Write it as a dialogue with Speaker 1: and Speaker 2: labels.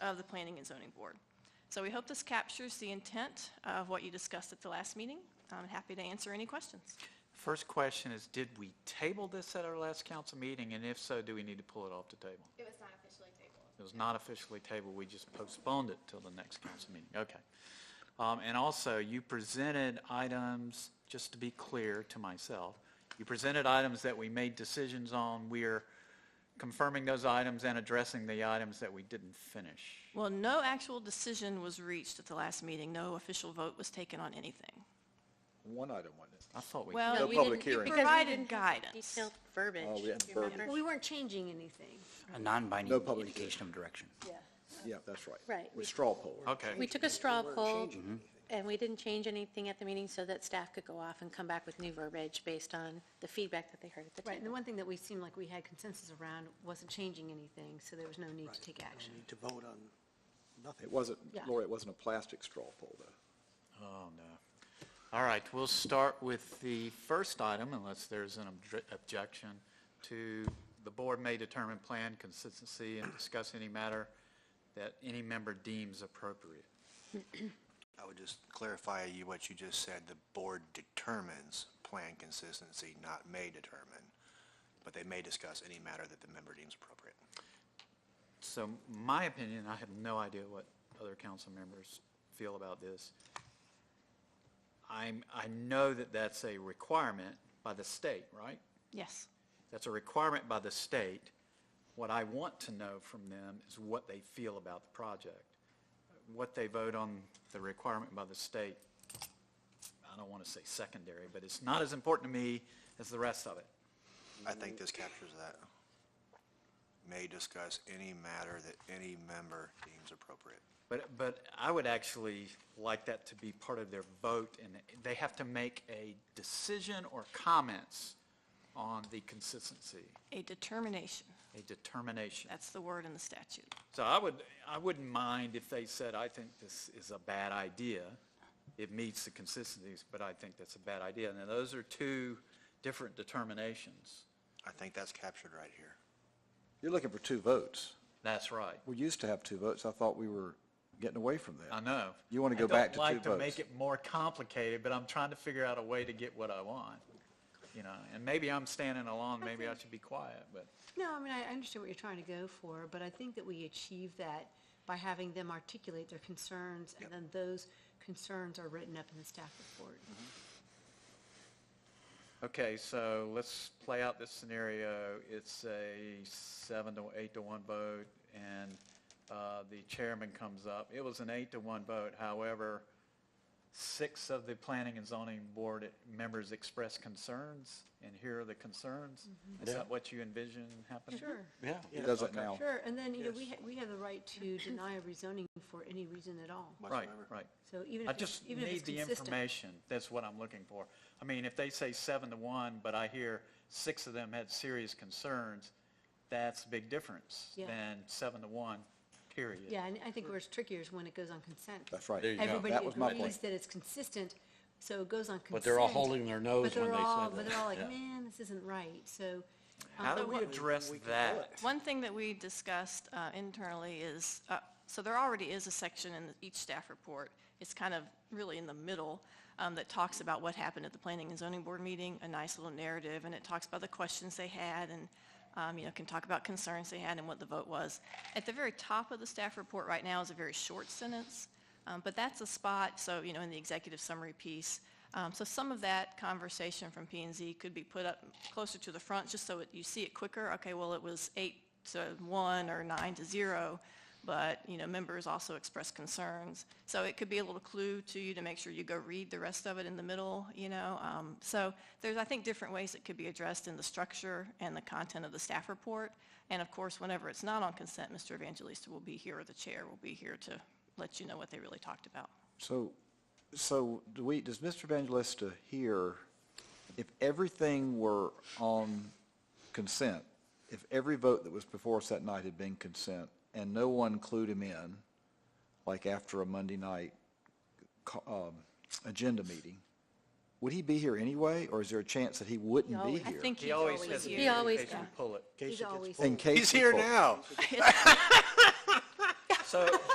Speaker 1: of the Planning and Zoning Board. So we hope this captures the intent of what you discussed at the last meeting. I'm happy to answer any questions.
Speaker 2: First question is, did we table this at our last council meeting? And if so, do we need to pull it off the table?
Speaker 3: It was not officially tabled.
Speaker 2: It was not officially tabled, we just postponed it till the next council meeting. Okay. Um, And also, you presented items, just to be clear to myself, you presented items that we made decisions on. We are confirming those items and addressing the items that we didn't finish.
Speaker 1: Well, no actual decision was reached at the last meeting. No official vote was taken on anything.
Speaker 4: One item, wasn't it?
Speaker 2: I thought we,
Speaker 1: Well,
Speaker 4: No
Speaker 1: we
Speaker 4: public
Speaker 1: didn't- you
Speaker 4: hearing.
Speaker 5: Because we
Speaker 1: provided
Speaker 5: didn't have
Speaker 1: guidance.
Speaker 5: Detailed verbiage.
Speaker 4: Oh, we had
Speaker 5: do you remember?
Speaker 4: verbiage.
Speaker 6: We weren't changing anything.
Speaker 7: A non-binding
Speaker 4: No public
Speaker 7: indication of direction.
Speaker 5: Yeah.
Speaker 4: Yeah, that's right.
Speaker 5: Right.
Speaker 4: With straw poll.
Speaker 2: okay.
Speaker 5: We took a straw poll, and we didn't change anything at the meeting so that staff could go off and come back with new verbiage based on the feedback that they heard at the
Speaker 6: Right, and the
Speaker 5: table.
Speaker 6: one thing that we seemed like we had consensus around wasn't changing anything, so there was no need to take action.
Speaker 8: We need to vote on nothing.
Speaker 4: It wasn't,
Speaker 6: Yeah.
Speaker 4: Lori, it wasn't a plastic straw poll, though.
Speaker 2: Oh, no. All right, we'll start with the first item, unless there's an obj- objection to, the board may determine plan consistency and discuss any matter that any member deems appropriate.
Speaker 8: I would just clarify you what you just said. The board determines plan consistency, not may determine. But they may discuss any matter that the member deems appropriate.
Speaker 2: So my opinion, I have no idea what other council members feel about this. I'm, I know that that's a requirement by the state, right?
Speaker 1: Yes.
Speaker 2: That's a requirement by the state. What I want to know from them is what they feel about the project. What they vote on the requirement by the state, I don't want to say secondary, but it's not as important to me as the rest of it.
Speaker 8: I think this captures that. May discuss any matter that any member deems appropriate.
Speaker 2: But, but I would actually like that to be part of their vote, and they have to make a decision or comments on the consistency,
Speaker 1: A determination.
Speaker 2: a determination.
Speaker 1: That's the word in the statute.
Speaker 2: So I would, I wouldn't mind if they said, I think this is a bad idea. It meets the consistencies, but I think that's a bad idea. Now, those are two different determinations.
Speaker 8: I think that's captured right here.
Speaker 4: You're looking for two votes.
Speaker 2: That's right.
Speaker 4: We used to have two votes. I thought we were getting away from that.
Speaker 2: I know.
Speaker 4: You wanna go back to
Speaker 2: I
Speaker 4: two
Speaker 2: don't like to make
Speaker 4: votes.
Speaker 2: it more complicated, but I'm trying to figure out a way to get what I want, you know? And maybe I'm standing alone, maybe I should be quiet, but
Speaker 6: No, I mean, I I understand what you're trying to go for, but I think that we achieve that by having them articulate their concerns, and then those concerns are written up in the staff report.
Speaker 2: Okay, so let's play out this scenario. It's a seven to eight to one vote, and uh, the chairman comes up. It was an eight to one vote, however, six of the planning and zoning board members expressed concerns, and here are the concerns. Is that what you envision happening?
Speaker 6: Sure.
Speaker 2: Yeah.
Speaker 4: It does it now.
Speaker 6: Sure, and then, you know, we, ha- we have the right to deny a rezoning for any reason at all.
Speaker 2: Right,
Speaker 8: Whatsoever.
Speaker 2: right.
Speaker 6: So even
Speaker 2: I
Speaker 6: if it's,
Speaker 2: just
Speaker 6: even if
Speaker 2: need
Speaker 6: it's
Speaker 2: the
Speaker 6: consistent.
Speaker 2: information. That's what I'm looking for. I mean, if they say seven to one, but I hear six of them had serious concerns, that's a big difference
Speaker 6: Yeah.
Speaker 2: than seven to one, period.
Speaker 6: Yeah, and I think where it's trickier is when it goes on consent.
Speaker 4: That's right.
Speaker 7: There you go.
Speaker 6: Everybody
Speaker 4: That was my
Speaker 6: agrees
Speaker 4: point.
Speaker 6: that it's consistent, so it goes on consent.
Speaker 7: But they're all holding their nose
Speaker 6: but they're
Speaker 7: when they said
Speaker 6: all- But
Speaker 7: that.
Speaker 6: they're all like,
Speaker 7: Yeah.
Speaker 6: man, this isn't right, so. um,
Speaker 2: How do
Speaker 6: but
Speaker 2: we
Speaker 6: what-
Speaker 2: address that?
Speaker 1: One thing that we discussed uh, internally is, uh, so there already is a section in each staff report. It's kind of really in the middle um, that talks about what happened at the Planning and Zoning Board meeting, a nice little narrative, and it talks about the questions they had and, um, you know, can talk about concerns they had and what the vote was. At the very top of the staff report right now is a very short sentence, um, but that's a spot, so, you know, in the executive summary piece. Um, So some of that conversation from P and Z could be put up closer to the front, just so it- you see it quicker. Okay, well, it was eight to one or nine to zero, but, you know, members also expressed concerns. So it could be a little clue to you to make sure you go read the rest of it in the middle, you know? Um, So there's, I think, different ways it could be addressed in the structure and the content of the staff report. And of course, whenever it's not on consent, Mr. Evangelista will be here, or the chair will be here to let you know what they really talked about.
Speaker 4: So, so do we, does Mr. Evangelista hear, if everything were on consent, if every vote that was before us that night had been consent, and no one clued him in, like after a Monday night co- um, agenda meeting, would he be here anyway, or is there a chance that he wouldn't be
Speaker 5: always-
Speaker 4: here?
Speaker 1: I think
Speaker 2: He
Speaker 1: he's
Speaker 2: always
Speaker 1: always
Speaker 2: says,
Speaker 1: here.
Speaker 5: He always-
Speaker 2: pull it.
Speaker 6: He's always,
Speaker 4: In case
Speaker 8: He's here
Speaker 4: people-
Speaker 8: now.
Speaker 2: So,